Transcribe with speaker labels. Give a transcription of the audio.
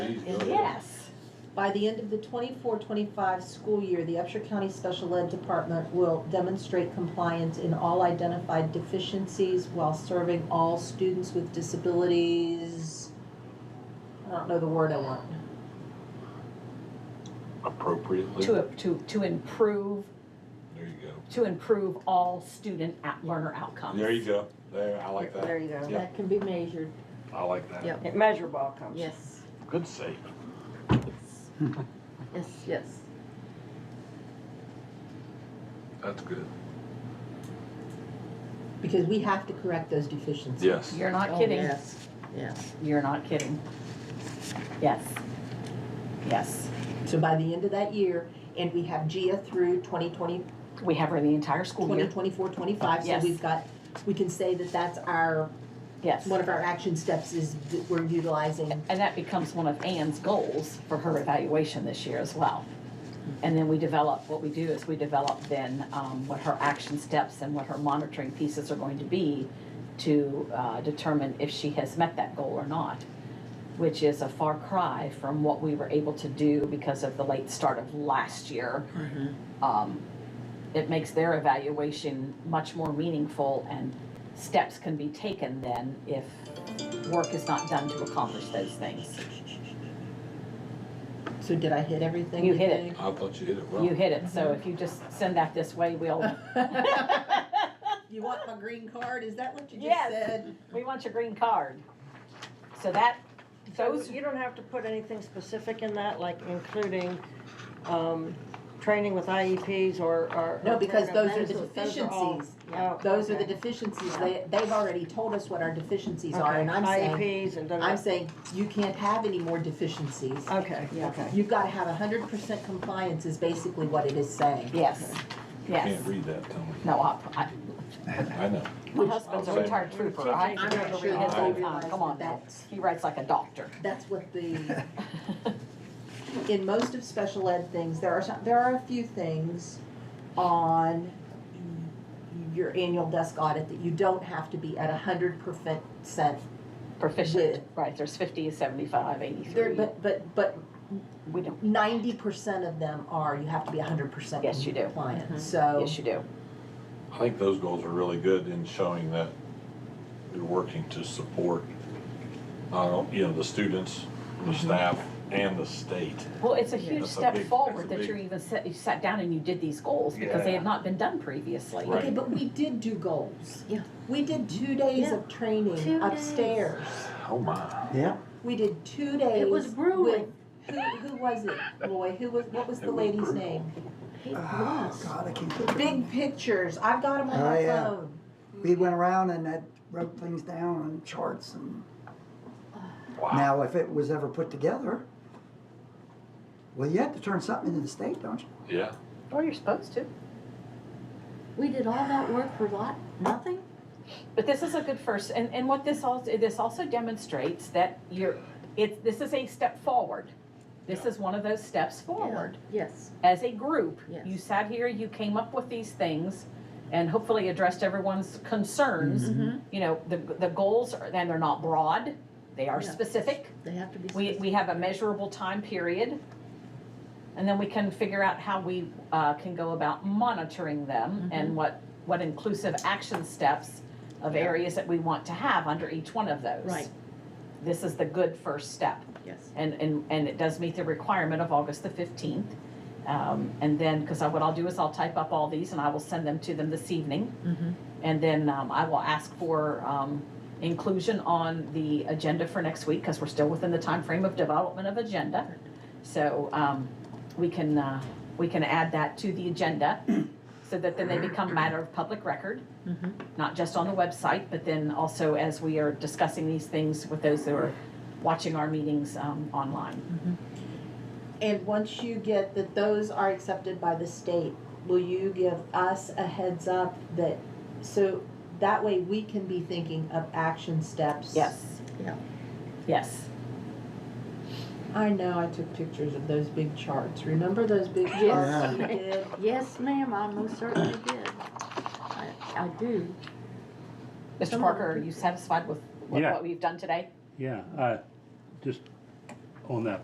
Speaker 1: need to
Speaker 2: is
Speaker 1: go.
Speaker 2: yes.
Speaker 3: By the end of the 24-25 school year, the Upshur County Special Ed Department will demonstrate compliance in all identified deficiencies while serving all students with disabilities. I don't know the word I want.
Speaker 1: Appropriately.
Speaker 2: To, to, to improve,
Speaker 1: There you go.
Speaker 2: to improve all student at, learner outcomes.
Speaker 1: There you go. There, I like
Speaker 4: There
Speaker 1: that.
Speaker 4: you go.
Speaker 1: Yeah.
Speaker 5: That can be measured.
Speaker 1: I like that.
Speaker 4: Yep.
Speaker 5: Measurable outcomes.
Speaker 4: Yes,
Speaker 1: Good save.
Speaker 4: yes, yes.
Speaker 1: That's good.
Speaker 3: Because we have to correct those deficiencies.
Speaker 1: Yes.
Speaker 2: You're not
Speaker 4: Oh,
Speaker 2: kidding.
Speaker 4: Yes, yes.
Speaker 2: You're not kidding. Yes. Yes.
Speaker 3: So by the end of that year, and we have GIA through 2020,
Speaker 2: We have her the entire school
Speaker 3: 20,
Speaker 2: year.
Speaker 3: 24, 25, so
Speaker 2: Yes.
Speaker 3: we've got, we can say that that's our,
Speaker 2: Yes.
Speaker 3: one of our action steps is that we're utilizing.
Speaker 2: And that becomes one of Ann's goals for her evaluation this year as well. And then we develop, what we do is we develop then um, what her action steps and what her monitoring pieces are going to be to uh, determine if she has met that goal or not, which is a far cry from what we were able to do because of the late start of last year. Um, It makes their evaluation much more meaningful and steps can be taken then if work is not done to accomplish those things.
Speaker 3: So did I hit everything?
Speaker 2: You hit it.
Speaker 3: think?
Speaker 1: I thought you did it well.
Speaker 2: You hit it, so if you just send that this way, we'll,
Speaker 3: You want my green card? Is that what you just
Speaker 2: Yes.
Speaker 3: said?
Speaker 2: we want your green card. So that,
Speaker 4: So
Speaker 2: those,
Speaker 4: you don't have to put anything specific in that, like including, um, training with IEPs or, or.
Speaker 3: No, because
Speaker 4: or-
Speaker 3: those are the
Speaker 4: those are all-
Speaker 3: deficiencies.
Speaker 4: Oh,
Speaker 3: Those are the
Speaker 4: okay.
Speaker 3: deficiencies. They, they've already told us what our deficiencies are,
Speaker 4: Okay,
Speaker 3: and I'm saying,
Speaker 4: IEPs and. da-da-da.
Speaker 3: I'm saying, you can't have any more deficiencies.
Speaker 4: Okay, okay.
Speaker 3: You've gotta have hundred percent compliance is basically what it is saying.
Speaker 2: yes, yes.
Speaker 1: Can't read that, Tony.
Speaker 2: No, I,
Speaker 1: I know.
Speaker 2: I, my husband's a retired trooper, I
Speaker 4: I'm
Speaker 3: I'm
Speaker 2: remember
Speaker 3: not sure
Speaker 2: reading his
Speaker 3: that they
Speaker 2: whole time,
Speaker 3: realize
Speaker 2: come on
Speaker 3: that
Speaker 2: now.
Speaker 3: that's,
Speaker 2: He writes like a doctor.
Speaker 3: that's what the, in most of special ed things, there are, some- there are a few things on your annual desk audit that you don't have to be at hundred percent
Speaker 2: Proficient, right, there's fifty, seventy-five,
Speaker 3: There,
Speaker 2: eighty-three,
Speaker 3: but, but, but
Speaker 2: we don't,
Speaker 3: ninety percent of them are, you have to be hundred percent
Speaker 2: Yes, you do.
Speaker 4: Mm-hmm.
Speaker 3: compliant, so.
Speaker 2: yes, you do.
Speaker 1: I think those goals are really good in showing that you're working to support, uh, you know, the students, the
Speaker 2: Mm-hmm.
Speaker 1: staff, and the state.
Speaker 2: Well, it's a huge
Speaker 1: That's a
Speaker 2: step
Speaker 1: big-
Speaker 2: forward
Speaker 1: that's a
Speaker 2: that you're
Speaker 1: big-
Speaker 2: even set, you sat down and you did these goals, because they
Speaker 1: Yeah.
Speaker 2: have not been done previously.
Speaker 1: Right.
Speaker 3: Okay, but we did do goals.
Speaker 4: Yeah.
Speaker 3: We did two days of
Speaker 4: Two
Speaker 3: training
Speaker 4: days.
Speaker 3: upstairs.
Speaker 1: Oh, my.
Speaker 6: Yeah.
Speaker 3: We did two days.
Speaker 4: It was grueling.
Speaker 3: with- Who, who was it, Roy? Who was, what was
Speaker 1: It
Speaker 3: the
Speaker 1: was
Speaker 3: lady's
Speaker 1: brutal.
Speaker 3: name?
Speaker 4: He
Speaker 6: Oh,
Speaker 4: was.
Speaker 6: God, I can't put
Speaker 3: Big pictures. I've got them on
Speaker 6: Oh,
Speaker 3: my
Speaker 6: yeah.
Speaker 3: phone.
Speaker 6: We went around and I wrote things down on charts and
Speaker 1: Wow.
Speaker 6: now if it was ever put together, well, you have to turn something into the state, don't you?
Speaker 1: Yeah.
Speaker 2: Well, you're supposed to.
Speaker 5: We did all that work for lot, nothing?
Speaker 2: But this is a good first, and, and what this also, this also demonstrates that you're, it, this is a step forward. This is one of those steps forward.
Speaker 4: Yes.
Speaker 2: As a group, you
Speaker 4: Yes.
Speaker 2: sat here, you came up with these things, and hopefully addressed everyone's concerns.
Speaker 4: Mhm.
Speaker 2: You know, the, the goals, are and they're not broad, they are
Speaker 4: Yeah.
Speaker 2: specific.
Speaker 4: They have to be.
Speaker 2: We, we have a measurable time period. And then we can figure out how we uh, can go about monitoring them and what, what inclusive action steps of areas that we want to have under each one of those.
Speaker 4: Right.
Speaker 2: This is the good first step.
Speaker 4: Yes.
Speaker 2: And, and, and it does meet the requirement of August the 15th. Um, And then, because what I'll do is I'll type up all these and I will send them to them this evening.
Speaker 4: Mhm.
Speaker 2: And then um, I will ask for um, inclusion on the agenda for next week, because we're still within the time frame of development of agenda. So um, we can, uh, we can add that to the agenda, so that then they become matter of public record,
Speaker 4: Mhm.
Speaker 2: not just on the website, but then also as we are discussing these things with those who are watching our meetings um, online.
Speaker 3: And once you get that those are accepted by the state, will you give us a heads up that, so that way we can be thinking of action steps?
Speaker 2: Yes.
Speaker 4: Yeah.
Speaker 2: Yes.
Speaker 3: I know I took pictures of those big charts. Remember those big charts
Speaker 6: Yes.
Speaker 3: we did?
Speaker 5: Yes, ma'am, I most certainly did. I, I do.
Speaker 2: Mr.
Speaker 5: Some
Speaker 2: Parker,
Speaker 5: other
Speaker 2: are you satisfied with what
Speaker 7: Yeah.
Speaker 2: what we've done today?
Speaker 7: Yeah, uh, just on that